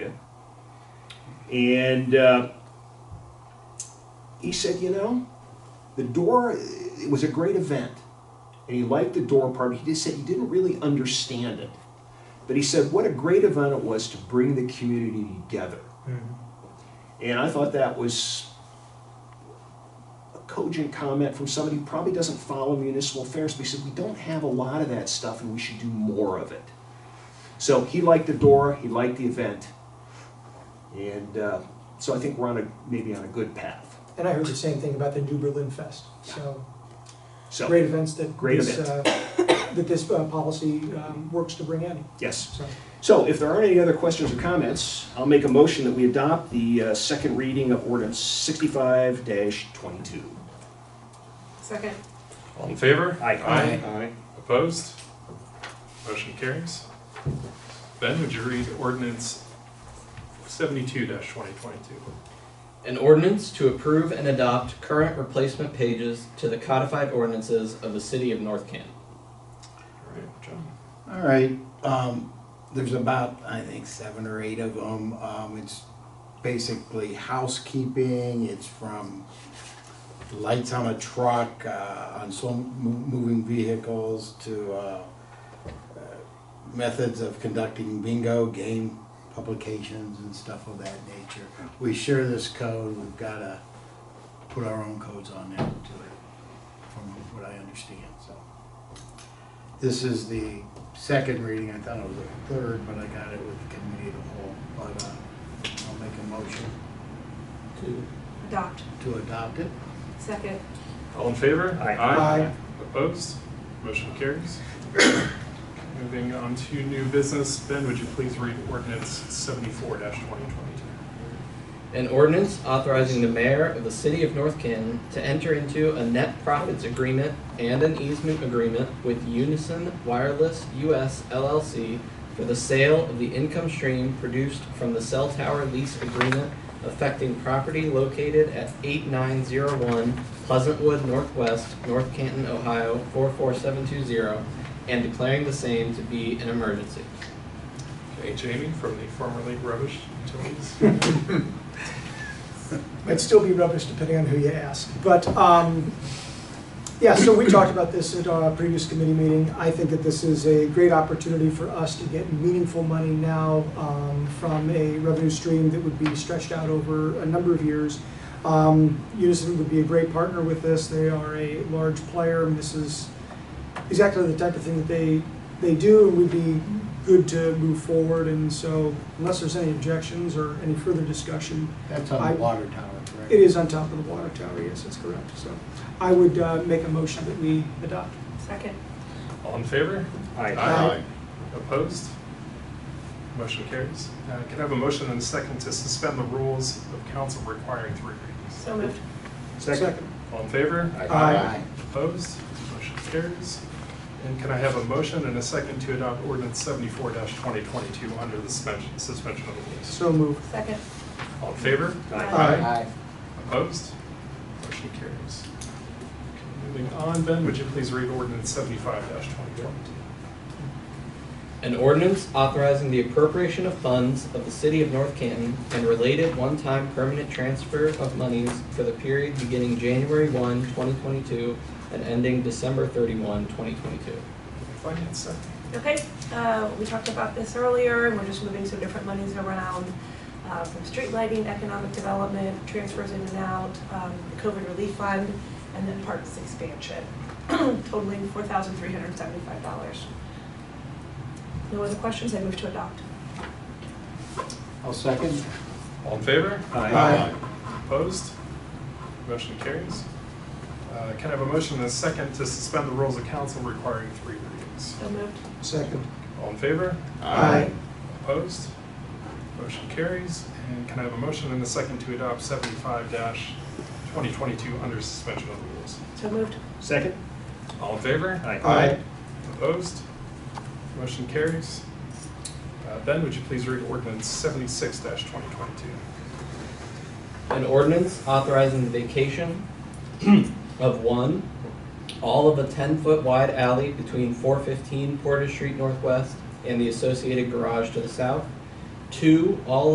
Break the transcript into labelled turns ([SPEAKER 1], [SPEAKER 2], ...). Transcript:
[SPEAKER 1] And uh, he said, you know, the door, it was a great event. And he liked the door part. He just said he didn't really understand it. But he said, what a great event it was to bring the community together.
[SPEAKER 2] Mm-hmm.
[SPEAKER 1] And I thought that was a cogent comment from somebody who probably doesn't follow municipal affairs. But he said, we don't have a lot of that stuff and we should do more of it. So he liked the door, he liked the event. And uh, so I think we're on a, maybe on a good path.
[SPEAKER 2] And I heard the same thing about the New Berlin Fest. So,
[SPEAKER 1] So,
[SPEAKER 2] great events that
[SPEAKER 1] Great
[SPEAKER 2] this, uh, that this uh, policy um, works to bring in,
[SPEAKER 1] yes.
[SPEAKER 2] so.
[SPEAKER 1] So if there aren't any other questions or comments, I'll make a motion that we adopt the uh, second reading of ordinance sixty-five twenty-two.
[SPEAKER 3] Second.
[SPEAKER 4] All in favor?
[SPEAKER 1] Aye.
[SPEAKER 5] Aye.
[SPEAKER 4] Opposed? Motion carries. Ben, would you read ordinance seventy-two twenty twenty-two?
[SPEAKER 5] An ordinance to approve and adopt current replacement pages to the codified ordinances of the city of North Canton.
[SPEAKER 4] All right, John.
[SPEAKER 6] All right, um, there's about, I think, seven or eight of them. Um, it's basically housekeeping, it's from lights on a truck, uh, on some mo- moving vehicles to, uh, uh, methods of conducting bingo game publications and stuff of that nature. We share this code, we've gotta put our own codes on there to it, from what I understand, so. This is the second reading, I thought it was the third, but I got it with the committee of the whole, but, uh, I'll make a motion
[SPEAKER 5] Two.
[SPEAKER 3] Adopt.
[SPEAKER 6] to adopt it.
[SPEAKER 3] Second.
[SPEAKER 4] All in favor?
[SPEAKER 1] Aye.
[SPEAKER 2] Aye.
[SPEAKER 4] Opposed? Motion carries. Moving on to new business, Ben, would you please read ordinance seventy-four twenty twenty-two?
[SPEAKER 5] An ordinance authorizing the mayor of the city of North Canton to enter into a net profits agreement and an easement agreement with Unison Wireless US LLC for the sale of the income stream produced from the cell tower lease agreement affecting property located at eight nine zero one Pleasantwood Northwest, North Canton, Ohio, four four seven two zero, and declaring the same to be an emergency.
[SPEAKER 4] Okay, Jamie from the formerly rubbish utilities.
[SPEAKER 2] Might still be rubbish depending on who you ask. But, um, yeah, so we talked about this at our previous committee meeting. I think that this is a great opportunity for us to get meaningful money now um, from a revenue stream that would be stretched out over a number of years. Um, Unison would be a great partner with this. They are a large player, and this is exactly the type of thing that they, they do and would be good to move forward. And so unless there's any objections or any further discussion,
[SPEAKER 6] That's on
[SPEAKER 2] I-
[SPEAKER 6] the water tower, correct?
[SPEAKER 2] it is on top of the water tower, yes, that's correct. So I would uh, make a motion that we adopt.
[SPEAKER 3] Second.
[SPEAKER 4] All in favor?
[SPEAKER 2] Aye.
[SPEAKER 4] Opposed? Motion carries. Uh, Can I have a motion and a second to suspend the rules of council requiring three readings?
[SPEAKER 3] So moved.
[SPEAKER 1] Second.
[SPEAKER 4] All in favor?
[SPEAKER 2] Aye.
[SPEAKER 4] Opposed? Motion carries. And can I have a motion and a second to adopt ordinance seventy-four twenty twenty-two under the suspension, suspension of the rules?
[SPEAKER 2] So moved.
[SPEAKER 3] Second.
[SPEAKER 4] All in favor?
[SPEAKER 1] Aye.
[SPEAKER 6] Aye.
[SPEAKER 4] Opposed? Motion carries. Okay, Moving on, Ben, would you please read ordinance seventy-five twenty twenty-two?
[SPEAKER 5] An ordinance authorizing the appropriation of funds of the city of North Canton and related one-time permanent transfer of monies for the period beginning January 1, 2022 and ending December 31, 2022.
[SPEAKER 4] Finance Secretary.
[SPEAKER 3] Okay, uh, we talked about this earlier, and we're just moving some different monies around uh, from street lighting, economic development, transfers in and out, um, the COVID relief fund, and then parks expansion, totaling four thousand three hundred seventy-five dollars. No other questions? I move to adopt.
[SPEAKER 6] I'll second.
[SPEAKER 4] All in favor?
[SPEAKER 6] Aye.
[SPEAKER 4] Opposed? Motion carries. Uh, Can I have a motion and a second to suspend the rules of council requiring three readings?
[SPEAKER 3] So moved.
[SPEAKER 2] Second.
[SPEAKER 4] All in favor?
[SPEAKER 2] Aye.
[SPEAKER 4] Opposed? Motion carries. And can I have a motion and a second to adopt seventy-five twenty twenty-two under suspension of the rules?
[SPEAKER 3] So moved.
[SPEAKER 1] Second?
[SPEAKER 4] All in favor?
[SPEAKER 1] Aye.
[SPEAKER 4] Opposed? Motion carries. Uh, Ben, would you please read ordinance seventy-six twenty twenty-two?
[SPEAKER 5] An ordinance authorizing the vacation of one, all of a 10-foot wide alley between 415 Porter Street Northwest and the associated garage to the south. Two, all